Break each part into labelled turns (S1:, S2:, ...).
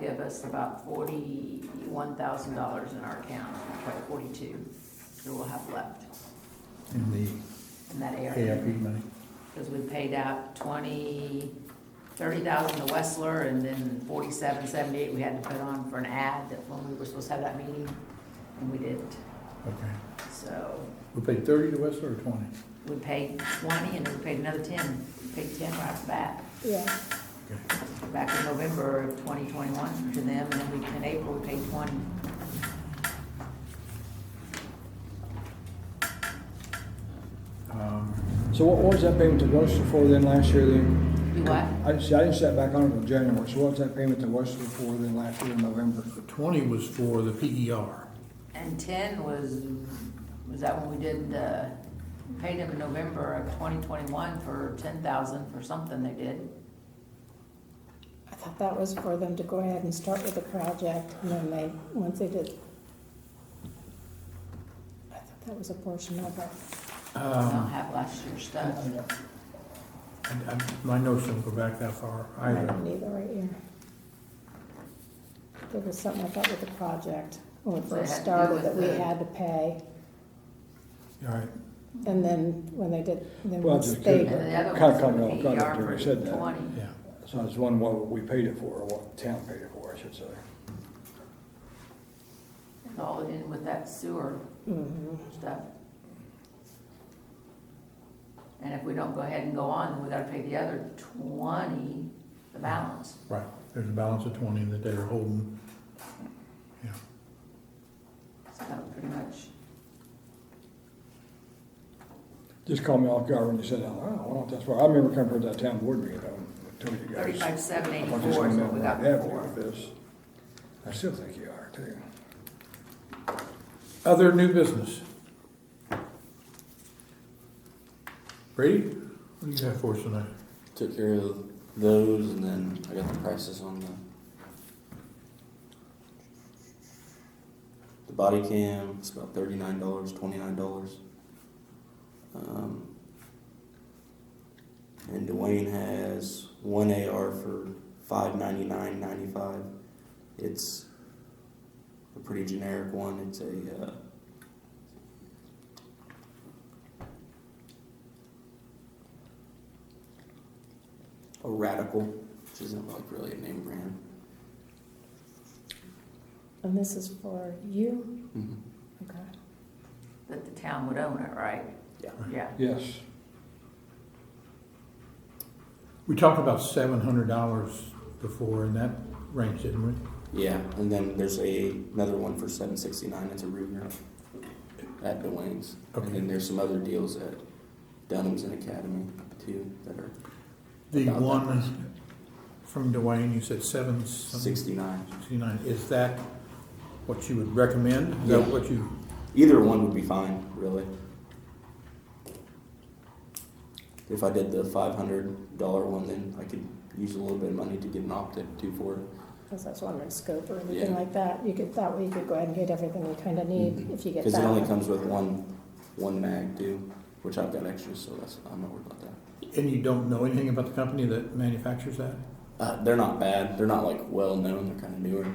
S1: give us about forty-one thousand dollars in our account, like forty-two, that we'll have left
S2: in the
S1: in that
S2: ARP
S1: area.
S2: money.
S1: Because we paid out twenty, thirty thousand to Westler, and then forty-seven, seventy-eight we had to put on for an ad that when we were supposed to have that meeting, and we didn't.
S2: Okay.
S1: So
S2: We paid thirty to Westler or twenty?
S1: we paid twenty, and then we paid another ten, We paid ten right back.
S3: Yeah.
S2: Okay.
S1: back in November of 2021 to them, and then we, in April, we paid 20.
S2: Um,
S4: So what was that payment to Webster for then last year then?
S1: You what?
S4: I, see, I didn't set back on it in January, so what was that payment to Webster for then last year in November?
S2: The twenty was for the E PER.
S1: And 10 was, was that when we did, uh, paid them in November of 2021 for 10,000 for something they did?
S3: I thought that was for them to go ahead and start with the project, and then they, once they did. I thought that was a portion of it.
S1: I
S4: Uh-huh.
S1: don't
S2: Um,
S1: have last year's stuff.
S4: I
S2: I- I- My notes don't go back that far
S3: I
S2: either.
S3: don't either right here. There was something I thought with the project, when we
S1: So it
S3: first
S1: had to do
S3: started,
S1: with
S3: that we
S1: the-
S3: had to pay,
S2: All right,
S3: and then when they did, then
S4: Well,
S3: once
S4: just
S3: they.
S1: And
S4: kidding.
S1: the other
S4: Cut,
S1: one's
S4: cut,
S1: for
S4: no, cut it,
S1: PER
S4: Jerry,
S1: for
S4: said that.
S1: 20.
S2: yeah.
S4: So I was wondering what we paid it for, or what the town paid it for, I should say.
S1: It's all in with that sewer
S4: Mm-hmm.
S3: Mhm.
S1: stuff. And if we don't go ahead and go on, then we gotta pay the other 20, the balance.
S2: Right, there's a balance of twenty that they're holding. Yeah,
S1: So that would pretty much
S4: Just called me off guard when you said, that. I don't know, that's why, I remember coming to that town board meeting, I told you guys.
S1: Thirty-five, seven
S4: I just
S1: eighty-four is
S4: remember
S1: what we got
S4: what happened
S1: before.
S4: with this. I still think you are too.
S2: other new business. Brady, what do you have for us tonight?
S5: Took care of those and then I got the prices on the the body cam. It's about thirty nine dollars, twenty nine dollars. Um, and Dwayne has one AR for five ninety nine ninety five. It's a pretty generic one. It's a uh, a radical, which isn't like really a name brand.
S3: And this is for you?
S5: Mm-hmm.
S3: Okay.
S1: That the town would own it, right?
S5: Yeah.
S1: Yeah.
S4: Yes,
S2: We talked about seven hundred dollars before in that range, didn't we?
S5: Yeah, and then there's a another one for seven sixty nine. It's a Ruger at Dwayne's,
S2: Okay.
S5: and then there's some other deals at Dunham's and Academy too that are
S2: The
S5: About that
S2: one from Dwayne, you said seven something?
S5: sixty nine.
S2: 69, is that what you would recommend? Is that
S5: Yeah.
S2: what you,
S5: Either one would be fine, really. If I did the five hundred dollar one, then I could use a little bit of money to get an optic too for it.
S3: Because that's wondering scope or anything
S5: Yeah.
S3: like that, you could, that way you could go ahead and get everything you kind of need
S5: Mhm.
S3: if you get
S5: Because it
S3: that
S5: only
S3: one.
S5: comes with one, one mag too, which I've got extra, so that's, I'm not worried about that.
S2: and you don't know anything about the company that manufactures that?
S5: Uh, they're not bad. They're not like well known. They're kind of newer,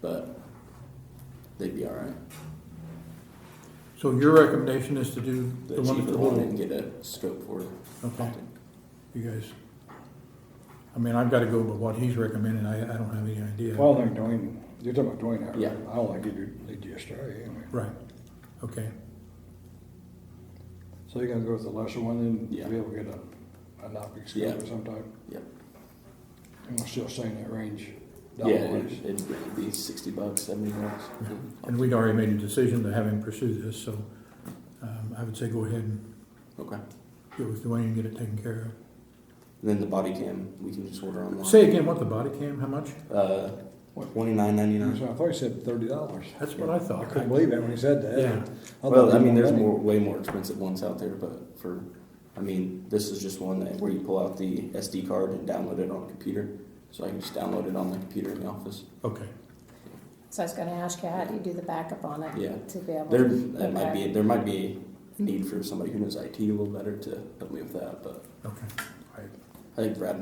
S5: but they'd be all right.
S2: So your recommendation is to do
S5: The,
S2: the one that's
S5: cheaper
S2: a
S5: one
S2: little,
S5: and get a scope for it.
S2: okay, you guys? I mean, I've got to go by what he's recommending, I, I don't have any idea.
S4: well, I think Dwayne, you're talking about Dwayne, I
S5: Yeah.
S4: I don't think he'd lead you astray anyway.
S2: Right, okay,
S4: So you're gonna go with the lesser one
S5: Yeah.
S4: and be able to get a, an optic
S5: Yeah.
S4: scope of some type?
S5: Yep.
S4: And we're still saying that range
S5: Yeah, it,
S4: dollar-wise?
S5: it'd it'd be sixty bucks, seventy bucks.
S2: and we'd already made a decision to have him pursue this, so um, I would say go ahead and
S5: Okay.
S2: go with Dwayne and get it taken care
S5: And then the body cam, we can just order online.
S2: of. Say again, what, the body cam, how much?
S5: Uh,
S4: What?
S5: twenty nine ninety nine.
S4: So I thought he said thirty dollars.
S2: That's what I
S4: I
S2: thought.
S4: couldn't believe that when he said that.
S2: Yeah.
S4: thought
S5: Well,
S4: there
S5: I
S4: was
S5: mean, there's
S4: many.
S5: more, way more expensive ones out there, but for, I mean, this is just one that where you pull out the SD card and download it on a computer. So I can just download it on the computer in the office.
S2: Okay,
S3: So I was gonna ask you, how do you do the backup on it?
S5: Yeah.
S3: To be able.
S5: There,
S3: to
S5: that might
S3: Okay.
S5: be, there might be a need for somebody who knows IT a little better to help me with that, but
S2: okay, all right.
S5: I think Brad